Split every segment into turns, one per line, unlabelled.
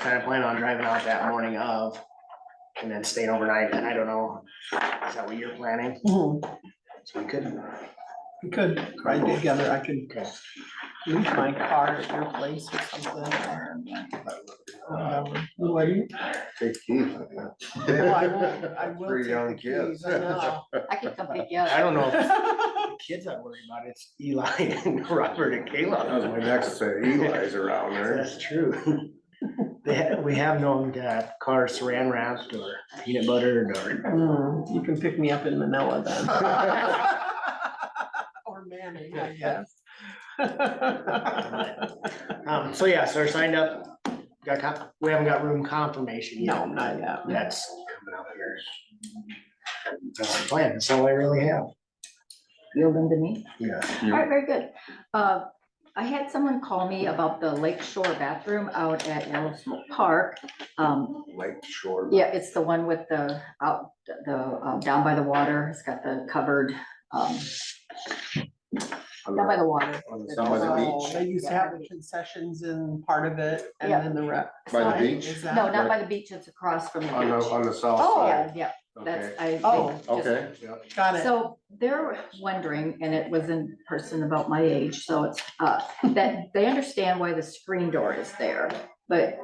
kind of plan on driving out that morning of and then staying overnight. And I don't know, is that what you're planning?
Mhm.
So we could,
We could ride together, I could
okay.
leave my car at your place or something, or. whatever. You wouldn't?
Take Keith. I
Well, I
guess.
will, I will.
Three
take
young
the keys,
kids.
I know.
Oh, I could come pick you
I
up.
don't know if the kids I worry about, it's Eli and Robert and
That was my
Kayla.
next say, Eli's around there.
That's true. They, ha- we have known to have cars saran wrapped or peanut buttered or.
Mm, You can pick me up in Manila then. Or Manning, I guess.
Um, so yeah, so we're signed up. Got, con- we haven't got room confirmation yet.
No, not yet.
That's coming up here. That's the plan, that's all I really have.
Yield them to me.
Yeah.
All right, very good. Uh, I had someone call me about the Lake Shore bathroom out at Yellowstone Park. Um,
Lake Shore.
yeah, it's the one with the, out, the, uh, down by the water. It's got the covered, um,
on
down by
the-
the water.
on the- Down by the
Oh,
beach.
They used to have the concessions in part of it and
Yeah.
then the rep.
It's
By the
not-
beach?
Is that-
No, not by the beach. It's across from the
On the,
beach.
on the south
Oh.
side.
Yeah, yeah,
Okay.
that's, I. they
Oh.
just-
Okay.
Got it.
So they're wondering, and it was in person about my age, so it's, uh, that they understand why the screen door is there, but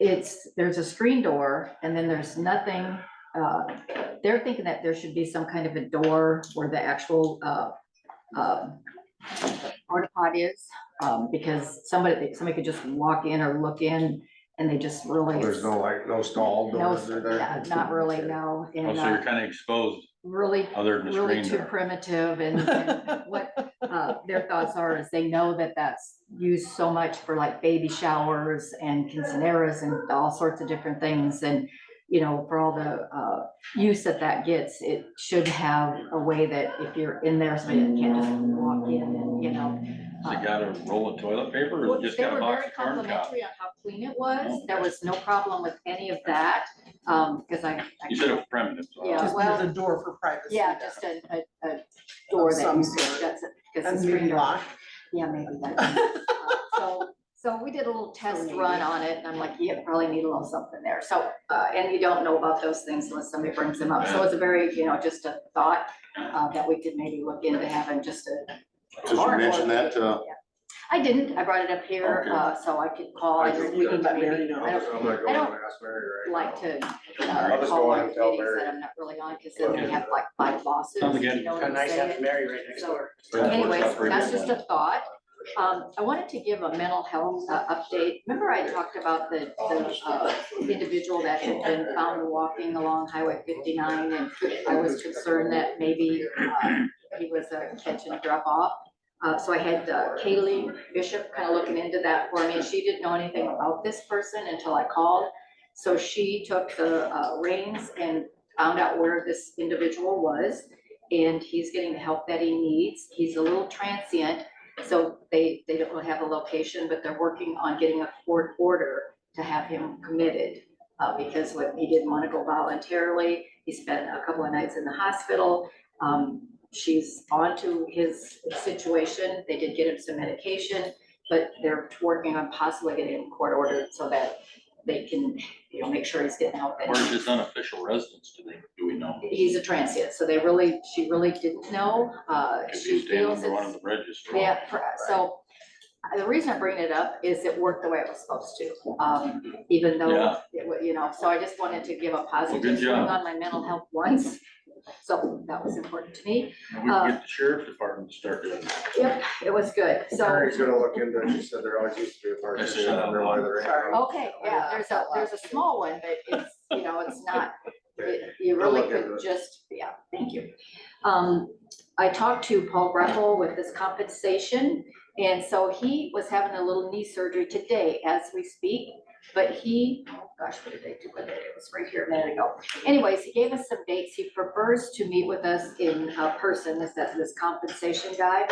it's, there's a screen door and then there's nothing, uh, they're thinking that there should be some kind of a door where the actual, uh, um, porta pot is, um, because somebody, somebody could just walk in or look in and they just really.
Oh, There's no like, no stall
No,
doors or there.
yeah, Not really, no,
Oh,
and,
so
uh,
you're kind of exposed
really
other than the
really
screen
too
door.
primitive and and what uh, their thoughts are is they know that that's used so much for like baby showers and quinceaneras and all sorts of different things and you know, for all the uh, use that that gets, it should have a way that if you're in there, somebody can't just walk in and, you know.
Has
uh,
it got a roll of toilet paper or
well,
has it just
They
got
were
a box
very
of corn cob?
complimentary on how clean it
Oh.
was. There was no problem with any of that, um, because I. I-
You said it was primitive, so.
Yeah.
Just
well-
there's a door for privacy. now.
Yeah, just a, a, a door that
some
you could,
sort.
that's it, because
And
the screen
maybe
door.
lock.
Yeah, maybe that. Um, So, so we did a little test run on it and I'm like, yeah, probably need a little something there. So, uh, and you don't know about those things unless somebody brings them up. So it's a very, you know, just a thought, uh, that we could maybe look into having just a.
Did you mention that to?
Yeah. I didn't. I brought it up here,
Okay.
uh, so I could call. I just, we need to
Let Mary
maybe,
know.
I don't
I'm gonna go
I don't
and ask Mary right
like
now.
to.
I'll
uh,
just
Call
go on
my
and tell
meetings that
Mary.
I'm not really on, because then we have like five losses,
Sounds good.
you know what
Kind
I'm
of nice
saying?
having Mary right next
So-
door.
Yeah.
Anyways,
Works out pretty
that's
good.
just a thought. Um, I wanted to give a mental health uh, update. Remember I talked about the, the, uh, individual that had been found walking along Highway fifty-nine and um, I was concerned that maybe, uh, he was a catch and drop off. Uh, so I had uh, Kaylee Bishop kind of looking into that for me. and She didn't know anything about this person until I called. So she took the, uh, reins and found out where this individual was and he's getting the help that he needs. He's a little transient, so they, they don't have a location, but they're working on getting a court order to have him committed. Uh, because what, he didn't want to go voluntarily. He spent a couple of nights in the hospital. Um, she's on to his situation. They did get him some medication, but they're working on possibly getting him court ordered so that they can, you know, make sure he's getting help. that he
Or is this unofficial residence, do they, do we know?
he's a transient, so they really, she really didn't know, uh,
Could
she
be staying
feels
under one of
it's.
the bridges. for all-
Yeah, pr- so, uh, the reason I bring it up is it worked the way it was supposed to, um, even though,
Mm-hmm. Yeah.
it wa- you know, so I just wanted to give a positive swing
job.
on my mental health once. So that was important to me,
And We
Uh,
could get the sheriff's department to start doing. it.
yep, it was good, so,
Mary's gonna look into it. She said there always used to be a park.
I see
She didn't
that.
realize there ain't
Sorry.
one.
okay, yeah, there's a, there's a small one, but it's, you know, it's not You- You
I'll
really
look into
could
it.
just, yeah, thank you. Um, I talked to Paul Greppel with his compensation, and so he was having a little knee surgery today as we speak. But he, oh gosh, what did they do with it? It was right here a minute ago. Anyways, he gave us some dates. He prefers to meet with us in uh, person, this, that- this compensation guy.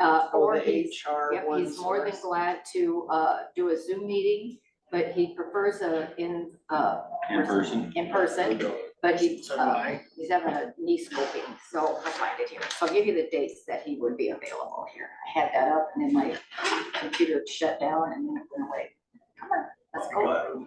Uh,
Oh,
or
the
he's
HR
Yep,
one
he's more than
source.
glad to uh, do a Zoom meeting, but he prefers a in, uh,
In person.
in person, but he,
So do
uh,
I.
he's having a knee scoping, so I find it here. So I'll give you the dates that he would be available here. I had that up and then my computer shut down and then it went away. Come on, Oh.
But-